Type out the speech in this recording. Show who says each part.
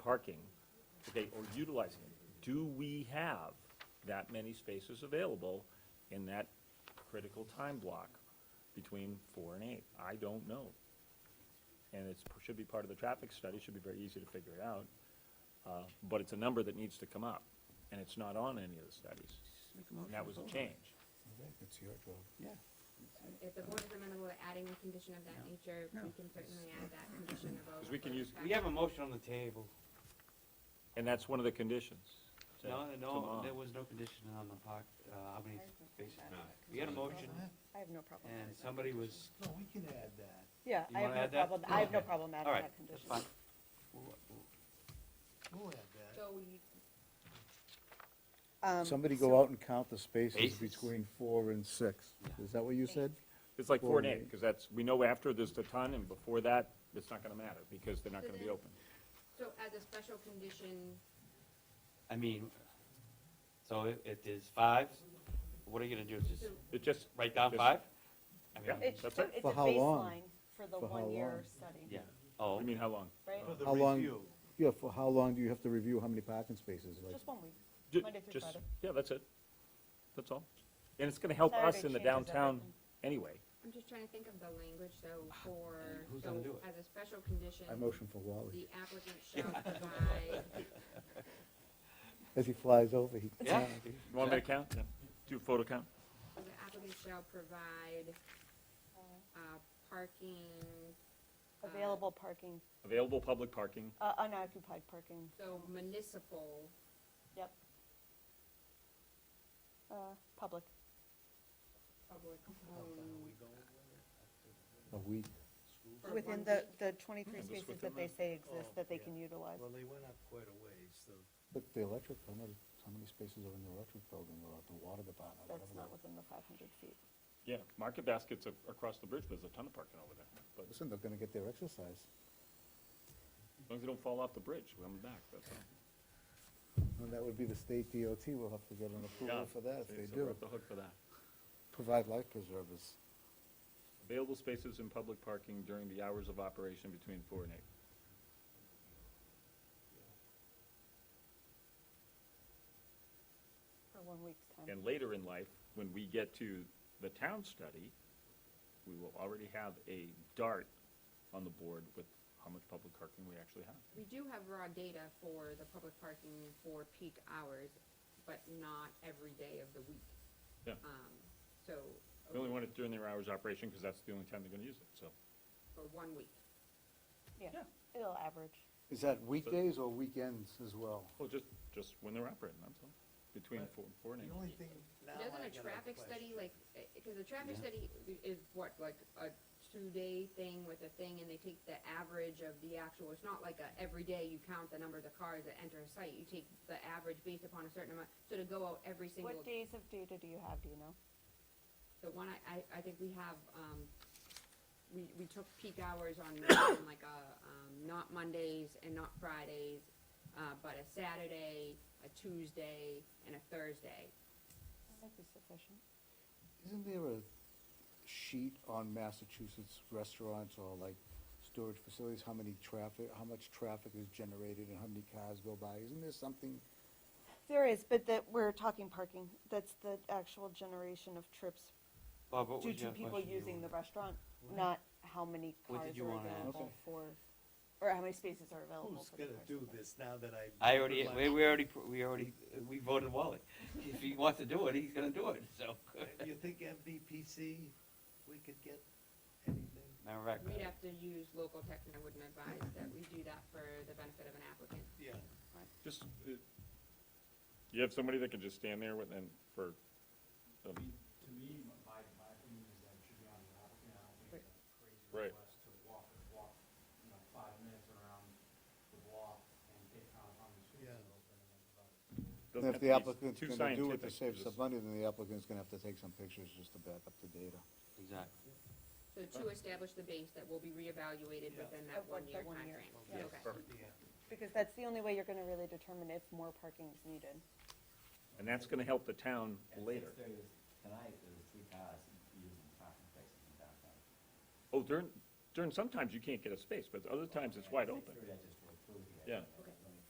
Speaker 1: parking, okay, or utilizing it, do we have that many spaces available in that critical time block between four and eight? I don't know. And it's, should be part of the traffic study, should be very easy to figure it out. Uh, But it's a number that needs to come up, and it's not on any of the studies.
Speaker 2: Make a
Speaker 1: And
Speaker 2: motion
Speaker 1: that
Speaker 2: to
Speaker 1: was a
Speaker 2: vote on it.
Speaker 1: change.
Speaker 3: It's your job.
Speaker 2: Yeah,
Speaker 4: If the board is amenable to adding a condition of that nature, we can certainly add that condition about.
Speaker 1: 'Cause we can use-
Speaker 5: We have a motion on the table.
Speaker 1: And that's one of the conditions. to-
Speaker 5: No,
Speaker 1: to
Speaker 5: no,
Speaker 1: mod.
Speaker 5: there was no condition on the park, uh, how many spaces. We had a motion
Speaker 6: I have no problem
Speaker 5: and
Speaker 6: adding that.
Speaker 5: somebody was,
Speaker 3: No, we can add that.
Speaker 6: Yeah,
Speaker 5: You
Speaker 6: I have
Speaker 5: wanna
Speaker 6: no
Speaker 5: add that?
Speaker 6: problem, I have no
Speaker 5: Okay.
Speaker 6: problem
Speaker 5: all
Speaker 6: adding
Speaker 5: right,
Speaker 6: that
Speaker 5: that's
Speaker 6: condition.
Speaker 5: fine. We'll- we'll-
Speaker 3: We'll add that.
Speaker 4: So we,
Speaker 6: Um,
Speaker 7: Somebody
Speaker 6: so-
Speaker 7: go out and count the spaces
Speaker 5: Spaces.
Speaker 7: between four and six. Is that what you said?
Speaker 1: It's like four and
Speaker 7: Four
Speaker 1: eight,
Speaker 7: and eight.
Speaker 1: because that's, we know after there's the ton, and before that, it's not gonna matter, because they're not
Speaker 4: So
Speaker 1: gonna be
Speaker 4: then-
Speaker 1: open.
Speaker 4: so as a special condition,
Speaker 5: I mean, so it, it is five, what are you gonna do, just
Speaker 1: It just,
Speaker 5: write down
Speaker 1: Just-
Speaker 5: five? I
Speaker 1: Yeah.
Speaker 5: mean,
Speaker 6: It's,
Speaker 1: That's
Speaker 6: it's a
Speaker 1: it.
Speaker 7: For how long?
Speaker 6: baseline for the
Speaker 7: For how
Speaker 6: one-year
Speaker 7: long?
Speaker 6: study.
Speaker 5: yeah, oh,
Speaker 1: I mean, how long?
Speaker 6: Right?
Speaker 3: For the
Speaker 7: How long-
Speaker 3: review.
Speaker 7: Yeah, for how long do you have to review how many parking spaces? Like,
Speaker 6: Just one week.
Speaker 1: Ju-
Speaker 6: Monday through
Speaker 1: just-
Speaker 6: Friday.
Speaker 1: Yeah, that's it. That's all. And it's gonna help
Speaker 6: Saturday
Speaker 1: us in the
Speaker 6: changes
Speaker 1: downtown
Speaker 6: everything.
Speaker 1: anyway.
Speaker 4: I'm just trying to think of the language, so for,
Speaker 5: Ah, Who's
Speaker 4: so
Speaker 5: gonna do it?
Speaker 4: as a special condition,
Speaker 7: I motion for Wally.
Speaker 4: the applicant shall provide,
Speaker 7: As he flies over, he.
Speaker 5: yeah.
Speaker 1: You want me to count? Do a photo count?
Speaker 4: the applicant shall provide, uh, parking,
Speaker 6: Available parking,
Speaker 1: Available public parking,
Speaker 6: uh, unoccupied parking,
Speaker 4: so municipal,
Speaker 6: yep. Uh, public,
Speaker 4: public owned.
Speaker 7: A week.
Speaker 4: for one
Speaker 6: within the,
Speaker 4: week.
Speaker 6: the twenty-three
Speaker 1: just
Speaker 6: spaces
Speaker 1: within
Speaker 6: that they
Speaker 1: the- oh,
Speaker 6: say exist, that they
Speaker 3: yeah.
Speaker 6: can utilize.
Speaker 3: Well, they went up quite a ways, so.
Speaker 7: Look, the electric, how many, how many spaces are in the electric building or at the water department?
Speaker 6: That's
Speaker 7: whatever
Speaker 6: not
Speaker 7: the-
Speaker 6: within the five hundred feet.
Speaker 1: yeah. Market Basket's a- across the bridge, but there's a ton of parking over there. But as
Speaker 7: Listen, they're gonna get their exercise.
Speaker 1: long as they don't fall off the bridge, we're coming back, that's all.
Speaker 7: And that would be the state DOT will have to get an
Speaker 1: Yeah.
Speaker 7: approval for that if
Speaker 1: See,
Speaker 7: they
Speaker 1: so we're
Speaker 7: do.
Speaker 1: off the hook for that.
Speaker 7: Provide life preservers.
Speaker 1: Available spaces in public parking during the hours of operation between four and eight.
Speaker 6: For one week's time.
Speaker 1: And later in life, when we get to the town study, we will already have a dart on the board with how much public parking we actually have.
Speaker 4: We do have raw data for the public parking for peak hours, but not every day of the week.
Speaker 1: Yeah.
Speaker 4: Um, so,
Speaker 1: We only want it during their hours of operation because that's the only time they're gonna use it, so.
Speaker 4: for one week.
Speaker 6: Yeah, it'll average.
Speaker 7: Is that weekdays or weekends as well?
Speaker 1: Well, just, just when they're operating, that's all, between
Speaker 3: Right.
Speaker 1: four, four and
Speaker 3: The
Speaker 1: eight.
Speaker 3: only thing now I
Speaker 4: Doesn't
Speaker 3: got
Speaker 4: a traffic study like, because the traffic
Speaker 5: Yeah.
Speaker 4: study is what, like a two-day thing with a thing and they take the average of the actual, it's not like a, every day you count the number of the cars that enter a site, you take the average based upon a certain amount, so to go out every single
Speaker 6: What days of data do you have, do you know?
Speaker 4: The one I, I, I think we have, um, we, we took peak hours on, on like a, um, not Mondays and not Fridays, uh, but a Saturday, a Tuesday, and a Thursday.
Speaker 6: That might be sufficient.
Speaker 7: Isn't there a sheet on Massachusetts restaurants or like storage facilities, how many traffic, how much traffic is generated and how many cars go by? Isn't there something?
Speaker 6: There is, but that, we're talking parking, that's the actual generation of trips
Speaker 5: Bob, what
Speaker 6: due
Speaker 5: was
Speaker 6: to
Speaker 5: your
Speaker 6: people
Speaker 5: question you
Speaker 6: using the
Speaker 5: wanted?
Speaker 6: restaurant, not how many
Speaker 5: What did
Speaker 6: cars
Speaker 5: you
Speaker 6: are
Speaker 5: wanna ask?
Speaker 6: available
Speaker 7: Okay.
Speaker 6: for, or how many spaces are available
Speaker 3: Who's
Speaker 6: for the
Speaker 3: gonna
Speaker 6: cars.
Speaker 3: do this now that I?
Speaker 5: I already, we,
Speaker 3: realized-
Speaker 5: we already, pr- we already, we voted Wally. If he wants to do it, he's gonna do it, so.
Speaker 3: You think MVPC, we could get anything?
Speaker 5: Matter of fact,
Speaker 4: We'd have to use local tech, and I wouldn't advise that we do that for the benefit of an applicant.
Speaker 3: Yeah.
Speaker 1: Just, uh, you have somebody that can just stand there with, and for, um,
Speaker 8: To me, my, my my opinion is that it should be on the applicant, I don't think it's a crazy
Speaker 1: Right.
Speaker 8: request to walk, walk, you know, five minutes around the block and get count how many spaces
Speaker 3: Yeah.
Speaker 8: are open and about it.
Speaker 7: And
Speaker 1: doesn't have
Speaker 7: If the
Speaker 1: to be
Speaker 7: applicant's
Speaker 1: too
Speaker 7: gonna do it to
Speaker 1: scientific,
Speaker 7: save
Speaker 1: just-
Speaker 7: some money, then the applicant's gonna have to take some pictures just to back up the data.
Speaker 5: exactly.
Speaker 4: So to establish the base that will be reevaluated
Speaker 3: Yeah.
Speaker 4: within that
Speaker 6: At what-
Speaker 4: one-year
Speaker 6: that one year.
Speaker 4: timeframe.
Speaker 3: Yeah.
Speaker 4: Okay.
Speaker 3: Yeah.
Speaker 6: Because that's the only way you're gonna really determine if more parking is needed.
Speaker 1: And that's gonna help the town later.
Speaker 8: At six thirty tonight, there were three cars using parking spaces in downtown.
Speaker 1: Oh, during, during, sometimes you can't get a space, but other times it's wide
Speaker 8: At
Speaker 1: open.
Speaker 8: 6:30, I just drove through here.
Speaker 1: Yeah.
Speaker 8: and